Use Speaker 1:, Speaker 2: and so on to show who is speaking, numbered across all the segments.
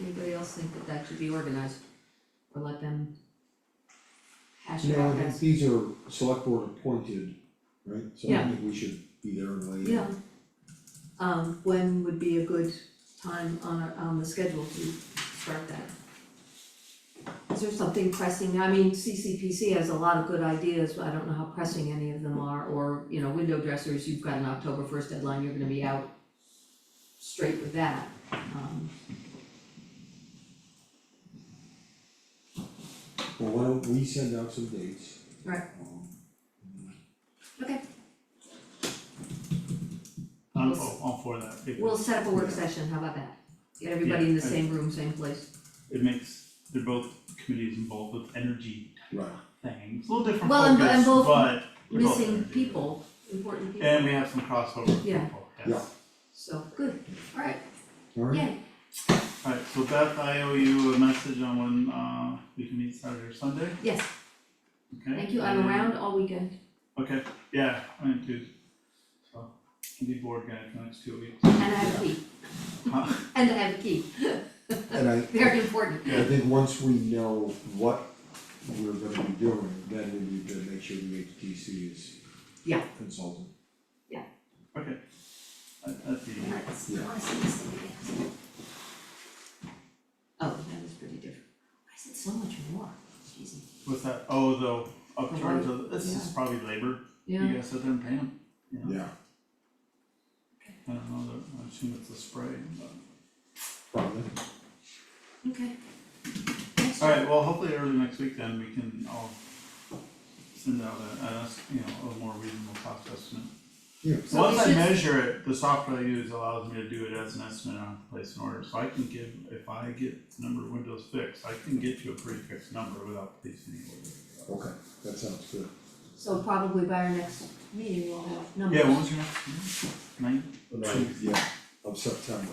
Speaker 1: Anybody else think that that should be organized? Or let them hash it
Speaker 2: No,
Speaker 1: out
Speaker 2: I think
Speaker 1: as,
Speaker 2: these are select board appointed, right? So I
Speaker 1: Yeah.
Speaker 2: think we should be there and lay
Speaker 1: yeah. Um, when would be a good time on our, on the schedule to start that? Is there something pressing, I mean, CCPC has a lot of good ideas, but I don't know how pressing any of them are, or, you know, window dressers, you've got an October first deadline, you're gonna be out straight with that, um,
Speaker 2: Well, why don't we send out some dates?
Speaker 1: Right.
Speaker 2: Um,
Speaker 1: okay,
Speaker 3: I'm all, all for that,
Speaker 1: we'll
Speaker 3: because
Speaker 1: set up a work session, how about that? Get everybody in the
Speaker 3: Yeah, I-
Speaker 1: same room, same place.
Speaker 3: it makes, they're both committees involved with energy
Speaker 2: Right,
Speaker 3: things, a little different
Speaker 1: Well, and-
Speaker 3: focus,
Speaker 1: and both
Speaker 3: but they're both
Speaker 1: missing
Speaker 3: energy.
Speaker 1: people, important people,
Speaker 3: And we have some crossover with
Speaker 1: Yeah.
Speaker 3: people, yes.
Speaker 2: Yeah.
Speaker 1: so, good, alright,
Speaker 2: alright?
Speaker 1: yay,
Speaker 3: Alright, so Beth, I owe you a message on when uh we can meet Saturday or Sunday,
Speaker 1: yes,
Speaker 3: okay?
Speaker 1: thank you, I'm
Speaker 3: And-
Speaker 1: around all weekend,
Speaker 3: Okay, yeah, I am too. So, can be board guy for the next two weeks.
Speaker 1: and I have a key,
Speaker 3: Huh?
Speaker 1: and I have a key,
Speaker 2: And I,
Speaker 1: very important,
Speaker 2: I think once we know what we're gonna be doing, then we need to make sure the HTC is
Speaker 1: Yeah.
Speaker 2: consultant.
Speaker 3: Okay. That that's the,
Speaker 4: Let's,
Speaker 2: Yeah.
Speaker 4: I see this thing again.
Speaker 1: oh, that was pretty different,
Speaker 4: Why is it so much more? Jeez.
Speaker 3: what's that, oh, the upcharge of, this is
Speaker 1: Yeah.
Speaker 3: probably labor, you
Speaker 1: yeah,
Speaker 3: gotta sit there and pay them, you know?
Speaker 2: Yeah,
Speaker 3: I don't know, the- I assume it's the spray, but.
Speaker 2: probably.
Speaker 1: okay.
Speaker 3: Alright, well, hopefully early next week then we can all send out a, a, s- you know, a more reasonable cost estimate.
Speaker 2: Yeah.
Speaker 1: So
Speaker 3: Once
Speaker 1: we
Speaker 3: I
Speaker 1: should-
Speaker 3: measure it, the software I use allows me to do it as an estimate on place an order, so I can give, if I get the number of windows fixed, I can get you a pretty fixed number without placing the order.
Speaker 2: Okay, that sounds good.
Speaker 1: So probably by our next meeting, we'll have numbers.
Speaker 3: Yeah, when was your next meeting? Ninth?
Speaker 2: Yeah, of September.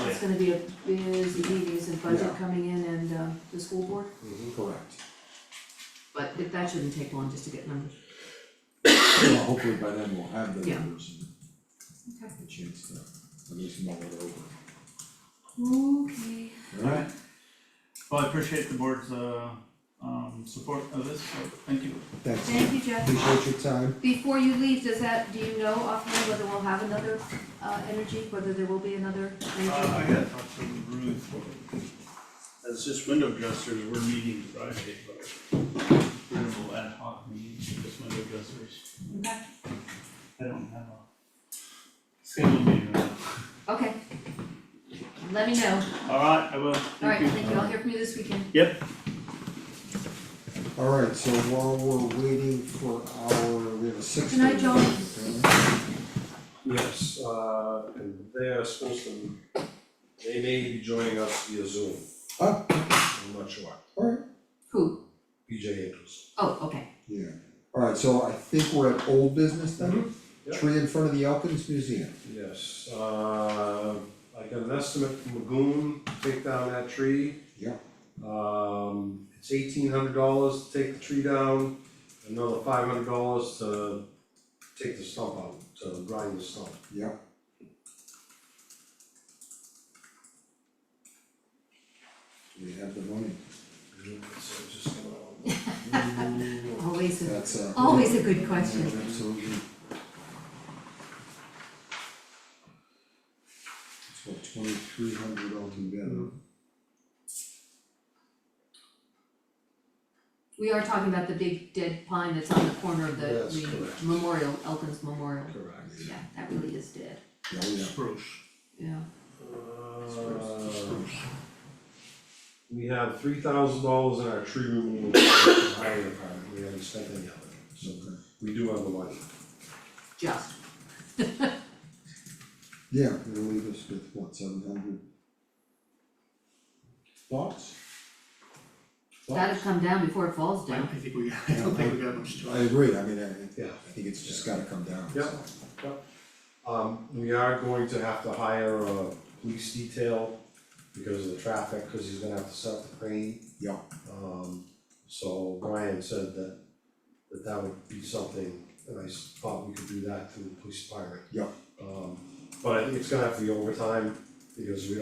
Speaker 3: Oh,
Speaker 1: It's gonna be a busy meeting, is a budget
Speaker 2: Yeah.
Speaker 1: coming in and, uh, the school board,
Speaker 2: Correct.
Speaker 1: but if that shouldn't take long just to get numbers.
Speaker 2: Well, hopefully by then we'll have the
Speaker 1: Yeah.
Speaker 2: numbers
Speaker 1: Okay.
Speaker 2: and a chance to at least mull it over.
Speaker 1: Okay.
Speaker 2: Alright,
Speaker 3: Alright. Well, I appreciate the board's, uh, um, support of this, so thank you.
Speaker 2: thanks.
Speaker 1: Thank you, Jeff.
Speaker 2: Appreciate your time.
Speaker 1: Before you leave, does that, do you know offhand whether we'll have another uh energy, whether there will be another energy?
Speaker 5: Uh, I gotta talk to Ruth. As just window dressers, we're meeting Friday, but we're gonna go ad hoc meetings for just window dressers.
Speaker 1: Okay.
Speaker 3: I don't have a scheduled meeting right now.
Speaker 1: Okay. Let me know.
Speaker 3: Alright, I will, thank you.
Speaker 1: Alright, thank you. I'll hear from you this weekend.
Speaker 3: Yep,
Speaker 2: Alright, so while we're waiting for our, we have a six.
Speaker 1: Good night, John.
Speaker 6: Yes, uh, and they are supposed to, they may be joining us via Zoom,
Speaker 2: Oh,
Speaker 6: I'm not sure,
Speaker 2: alright,
Speaker 1: Who?
Speaker 6: BJ Andrews.
Speaker 1: Oh, okay.
Speaker 2: yeah. Alright, so I think we're at old business then?
Speaker 6: yeah.
Speaker 2: Tree in front of the Elkins Museum.
Speaker 6: Yes, uh, I got an estimate from Magoon, to take down that tree.
Speaker 2: Yeah.
Speaker 6: Um, it's eighteen hundred dollars to take the tree down, another five hundred dollars to take the stump out, to grind the stump.
Speaker 2: Yeah. We have the money. Mm-hmm.
Speaker 6: So it's just uh, gonna.
Speaker 1: Always a,
Speaker 2: That's uh.
Speaker 1: always a good question.
Speaker 2: Yeah, Absolutely. So twenty-three hundred altogether.
Speaker 1: We are talking about the big dead pine that's on the corner of the
Speaker 6: That's
Speaker 1: the
Speaker 6: correct.
Speaker 1: memorial, Elkins Memorial.
Speaker 6: Correct.
Speaker 1: Yeah, that really is dead.
Speaker 2: Yeah, oh yeah.
Speaker 1: Yeah.
Speaker 6: Uh, We have three thousand dollars in our tree removal, highway department, we haven't spent any of it, so we do have the money.
Speaker 1: Just.
Speaker 2: Yeah, it'll leave us with what, seven hundred? Thoughts?
Speaker 1: That'll come down before it falls
Speaker 5: I
Speaker 1: down.
Speaker 5: don't think we, I don't think we got much
Speaker 2: I
Speaker 5: choice.
Speaker 2: agree, I mean, I, I
Speaker 6: Yeah.
Speaker 2: think it's just gotta come down,
Speaker 6: Yeah.
Speaker 2: so.
Speaker 6: Um, we are going to have to hire a police detail because of the traffic, cause he's gonna have to set up the crane.
Speaker 2: Yeah.
Speaker 6: Um, so Brian said that, that that would be something, and I s- thought we could do that through the police department.
Speaker 2: Yeah.
Speaker 6: Um, but I think it's gonna have to be overtime, because we